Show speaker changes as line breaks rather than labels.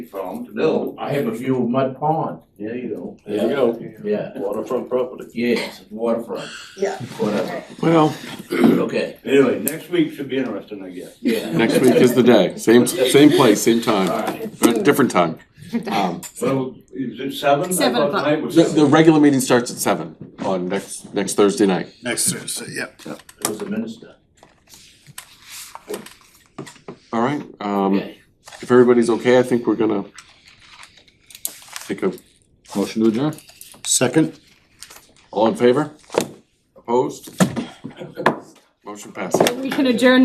from to do.
I have a few mud ponds, there you go,
There you go,
yeah,
waterfront property.
yes, waterfront.
Yeah.
Whatever,
Well,
okay,
Anyway, next week should be interesting, I guess.
yeah.
next week is the day. Same, same place, same
All
time,
right,
Uh, different time. Um,
Well, is it seven? I
Seven
thought
o'clock.
tonight was
The, the
seven.
regular meeting starts at seven on next, next Thursday night.
Next Thursday, yeah.
it was a minister,
All right, um,
okay.
if everybody's okay, I think we're gonna take a motion to adjourn.
Second?
All in favor? Opposed? Motion passes.
We can adjourn